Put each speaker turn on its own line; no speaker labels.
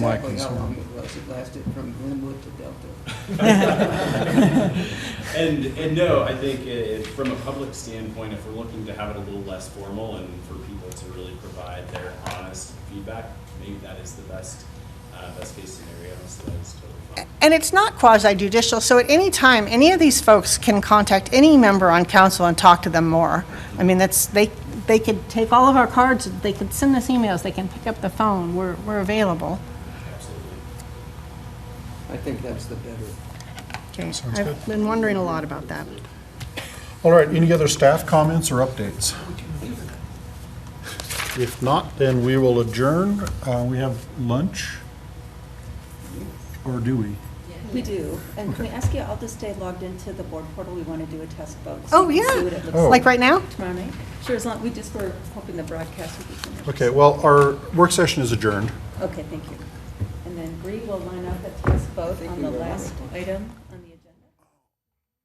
My
Well, How long
concern.
it was, it lasted from Glenwood to Delta.
And, and no, I think if, from a public standpoint, if we're looking to have it a little less formal and for people to really provide their honest feedback, maybe that is the best, uh, best case scenario, so that is totally fine.
And it's not quasi judicial, so at any time, any of these folks can contact any member on council and talk to them more. I mean, that's, they, they could take all of our cards, they could send us emails, they can pick up the phone, we're, we're available.
Absolutely.
I think that's the better.
Okay,
Sounds
I've
good.
been wondering a lot about that.
All right, any other staff comments or updates? If not, then we will adjourn. Uh, We have lunch, or do we?
We do. And can we ask you all to stay logged into the board portal? We want to do a test vote. so
Oh,
you can see
yeah.
what it looks
Oh.
Like right now?
Tomorrow night? Sure, as long, we just were hoping the broadcast would be finished.
Okay, well, our work session is adjourned.
Okay, thank you. And then Bree will line up the test vote
think
on
we
the
were-
last item